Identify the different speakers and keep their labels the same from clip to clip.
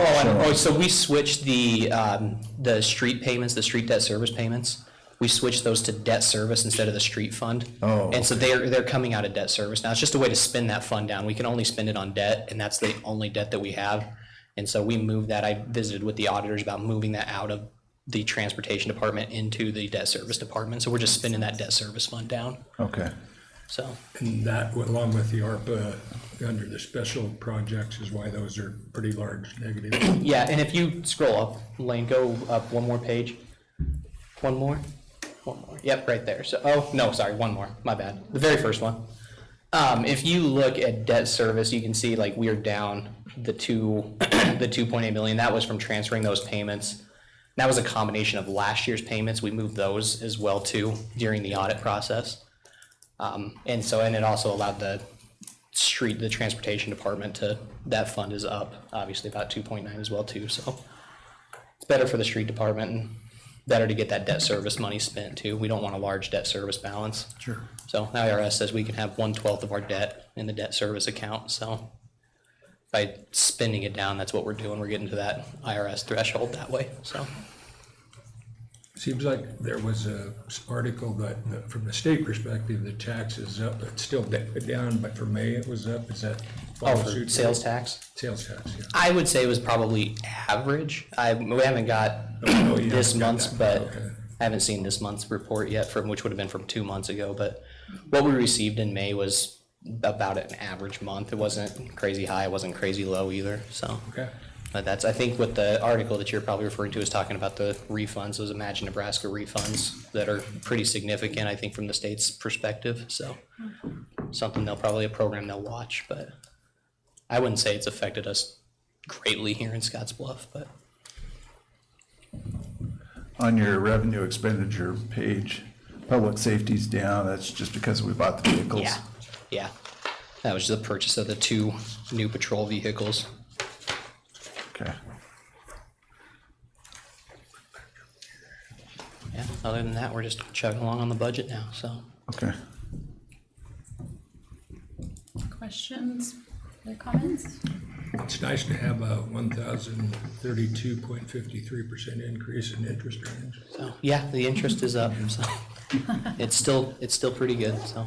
Speaker 1: Oh, and, oh, so we switched the, um, the street payments, the street debt service payments. We switched those to debt service instead of the street fund.
Speaker 2: Oh,
Speaker 1: And so they're, they're coming out of debt service now. It's just a way to spin that fund down. We can only spend it on debt, and that's the only debt that we have. And so we moved that. I visited with the auditors about moving that out of the transportation department into the debt service department. So we're just spinning that debt service fund down,
Speaker 2: Okay,
Speaker 1: so.
Speaker 3: And that, along with the ARPA, under the special projects is why those are pretty large negative.
Speaker 1: Yeah, and if you scroll up, Lane, go up one more page. One more? One more. Yep, right there. So, oh, no, sorry, one more. My bad. The very first one. Um, if you look at debt service, you can see like we are down the two, the two point eight million. That was from transferring those payments. That was a combination of last year's payments. We moved those as well too during the audit process. Um, and so, and it also allowed the street, the transportation department to, that fund is up, obviously about two point nine as well too, so. It's better for the street department and better to get that debt service money spent too. We don't want a large debt service balance. Sure. So IRS says we can have one twelfth of our debt in the debt service account, so. By spending it down, that's what we're doing. We're getting to that IRS threshold that way, so.
Speaker 3: Seems like there was a s- article that, that from the state perspective, the tax is up, it's still da- down, but for May it was up, is that?
Speaker 1: Oh,
Speaker 3: follow
Speaker 1: for
Speaker 3: suit?
Speaker 1: sales tax?
Speaker 3: Sales tax, yeah.
Speaker 1: I would say it was probably average. I, we haven't got
Speaker 3: Oh, yeah,
Speaker 1: this
Speaker 3: got
Speaker 1: month's,
Speaker 3: that.
Speaker 1: but
Speaker 3: Okay.
Speaker 1: I haven't seen this month's report yet from, which would have been from two months ago, but what we received in May was about an average month. It wasn't crazy high, it wasn't crazy low either, so.
Speaker 3: Okay.
Speaker 1: But that's, I think what the article that you're probably referring to is talking about the refunds, those Imagine Nebraska refunds that are pretty significant, I think, from the state's perspective, so. Something they'll probably, a program they'll watch, but I wouldn't say it's affected us greatly here in Scotts Bluff, but
Speaker 2: on your revenue expenditure page, public safety's down, that's just because we bought the vehicles.
Speaker 1: yeah, yeah. That was the purchase of the two new patrol vehicles.
Speaker 2: Okay,
Speaker 1: Yeah, other than that, we're just chugging along on the budget now, so.
Speaker 2: okay.
Speaker 4: Questions or comments?
Speaker 3: It's nice to have a one thousand thirty-two point fifty-three percent increase in interest earnings.
Speaker 1: So, yeah, the interest is up, so it's still, it's still pretty good, so.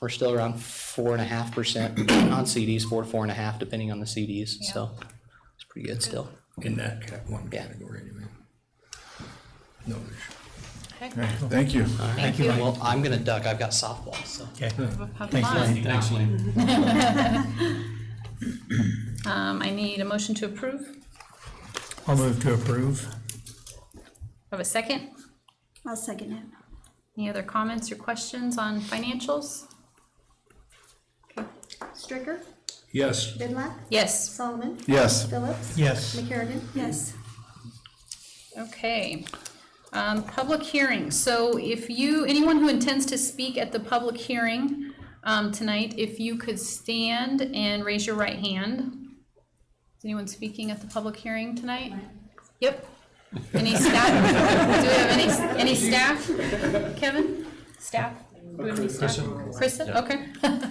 Speaker 1: We're still around four and a half percent on CDs, four to four and a half, depending on the CDs, so it's pretty good still.
Speaker 3: In that cat, one
Speaker 1: Yeah.
Speaker 3: category anyway. No issue.
Speaker 2: Okay, thank you.
Speaker 4: Thank you.
Speaker 1: Well, I'm gonna duck, I've got softball, so.
Speaker 4: Have fun.
Speaker 5: Thanks, Lane.
Speaker 4: Um, I need a motion to approve.
Speaker 6: I'll move to approve.
Speaker 4: Have a second?
Speaker 7: I'll second it.
Speaker 4: Any other comments or questions on financials?
Speaker 7: Stricker,
Speaker 3: Yes,
Speaker 7: Bidlack,
Speaker 4: Yes,
Speaker 7: Solomon,
Speaker 2: Yes,
Speaker 7: Phillips.
Speaker 6: Yes.
Speaker 7: McCarrigan. Yes.
Speaker 4: okay. Um, public hearing, so if you, anyone who intends to speak at the public hearing, um, tonight, if you could stand and raise your right hand. Is anyone speaking at the public hearing tonight? Yep. Any staff? Do we have any, any staff? Kevin? Staff? Do we have any staff? Kristen, okay.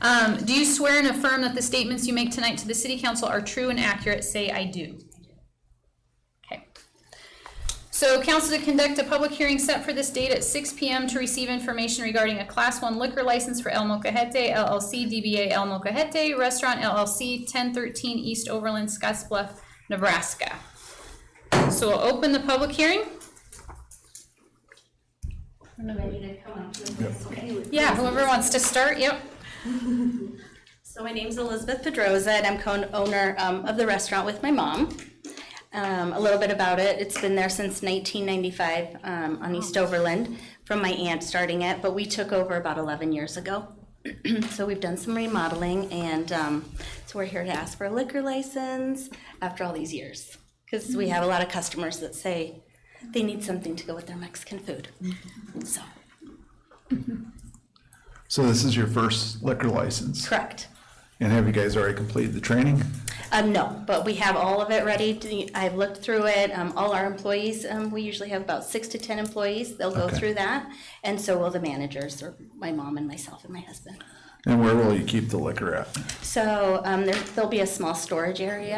Speaker 4: Um, do you swear and affirm that the statements you make tonight to the city council are true and accurate? Say, I do. Okay. So council to conduct a public hearing set for this date at six P M to receive information regarding a class one liquor license for El Mocajete LLC, DBA El Mocajete Restaurant LLC, ten thirteen East Overland, Scottsbluff, Nebraska. So we'll open the public hearing. Yeah, whoever wants to start, yep.
Speaker 8: So my name's Elizabeth Pedroza, and I'm co-owner um, of the restaurant with my mom. Um, A little bit about it, it's been there since 1995 um, on East Overland, from my aunt starting it, but we took over about 11 years ago. So we've done some remodeling, and um, so we're here to ask for a liquor license after all these years. Because we have a lot of customers that say they need something to go with their Mexican food, so,
Speaker 2: so this is your first liquor license?
Speaker 8: correct.
Speaker 2: And have you guys already completed the training?
Speaker 8: Um, no, but we have all of it ready. to- I've looked through it. Um, all our employees, um, we usually have about six to ten employees. They'll go
Speaker 2: Okay.
Speaker 8: through that, and so will the managers, or my mom and myself and my husband.
Speaker 2: And where will you keep the liquor at?
Speaker 8: So um, there, there'll be a small storage area